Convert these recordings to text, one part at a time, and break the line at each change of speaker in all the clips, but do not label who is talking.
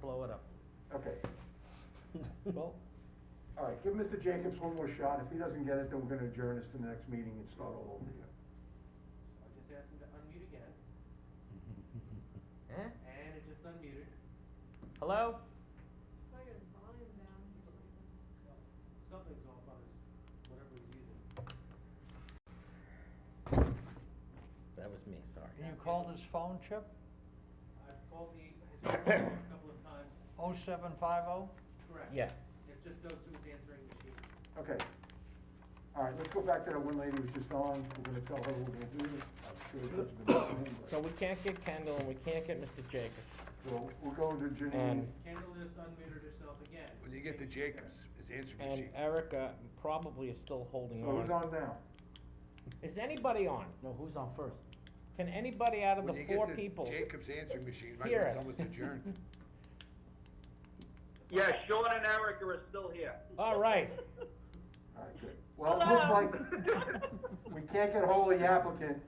blow it up.
Okay,
Well,
all right, give Mr. Jacobs one more shot. If he doesn't get it, then we're gonna adjourn this to the next meeting and start all over again.
I'll just ask him to unmute again, and it just unmuted.
Hello?
I got his volume down, he's like,
Something's off on his, whatever he's using.
That was me,
And
sorry.
you called his phone, Chip?
I've called the, his phone a couple of times,
Oh seven five oh?
correct.
Yeah.
It just goes to his answering machine.
Okay. All right, let's go back to that one lady who was just on. We're gonna tell her what we're gonna do. I'm sure she's been listening, but-
So we can't get Kendall and we can't get Mr. Jacobs.
We'll, we'll go to Janine.
And-
Kendall just unmuted herself again.
When you get to Jacobs, his answering
And
machine.
Erica probably is still
So
holding
who's
on.
on now?
Is anybody on?
No, who's on first?
Can anybody out of the
When you get
four
to
people?
Jacob's answering machine, you might
Hear
as
us.
well tell it's adjourned.
Yeah, Sean and Eric are still here.
All right.
All right, good. Well, it looks like we can't get hold of the applicant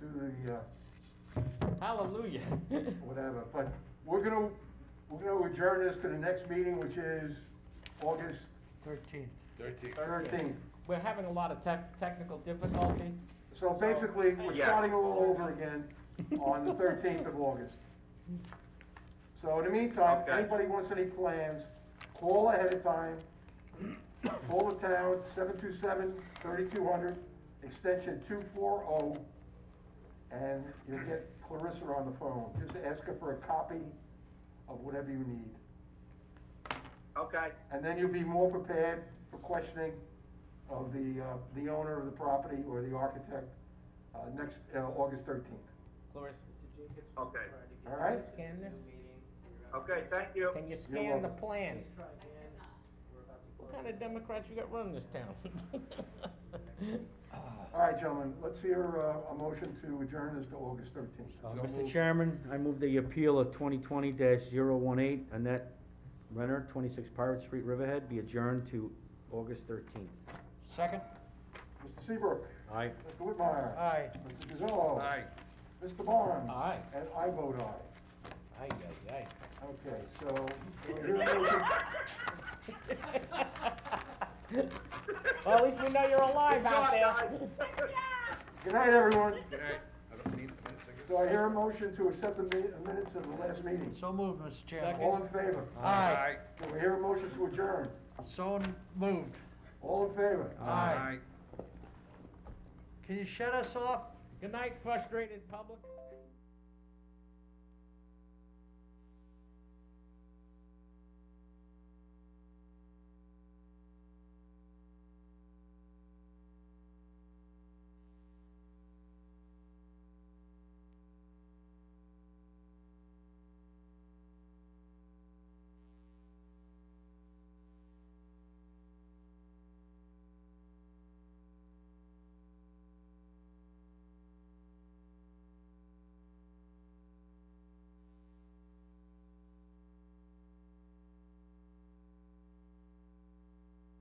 to do the, uh,
Hallelujah.
whatever, but we're gonna, we're gonna adjourn this to the next meeting, which is August
Thirteenth.
Thirteen.
thirteenth.
We're having a lot of tech, technical difficulty.
So basically, we're
Yeah.
starting all over again on the thirteenth of August. So in the meantime, if
Okay.
anybody wants any plans, call ahead of time. Call the town, 727-3200, extension two four oh, and you'll get Clarissa on the phone. Just ask her for a copy of whatever you need.
Okay,
And then you'll be more prepared for questioning of the, uh, the owner of the property or the architect, uh, next, uh, August thirteenth.
Clarissa,
Mr. Jacobs.
Okay.
tried to get
All right.
you to
Scan
the
this?
Zoom meeting, and you're out of
okay,
connection.
thank you.
can you scan the
welcome.
plans?
Please try again. We're about to
What
close
kind of
it.
Democrats you got running this town?
Uh,
All right, gentlemen, let's hear, uh, a motion to adjourn this to August thirteenth.
Uh,
So
Mr.
moved.
Chairman, I move the appeal of twenty twenty 18 Annette Renner, twenty-six Pirate Street, Riverhead, be adjourned to August thirteenth.
Second?
Mr. Seabrook,
Aye.
Mr. Whitmire.
Aye.
Mr. Gazillo.
Aye.
Mr. Barnes.
Aye.
And I vote aye.
Aye, aye,
Okay, so, do I hear a motion-
aye. Well, at least we know you're alive out there.
good night, everyone.
Good night. I don't need minutes, I guess.
Do I hear a motion to accept the mi- minutes of the last meeting?
So moved, Mr. Chairman.
All in favor?
Aye.
Do I hear a motion to adjourn?
So moved.
All in favor?
Aye. Can you shut us off?
Good night, frustrated public.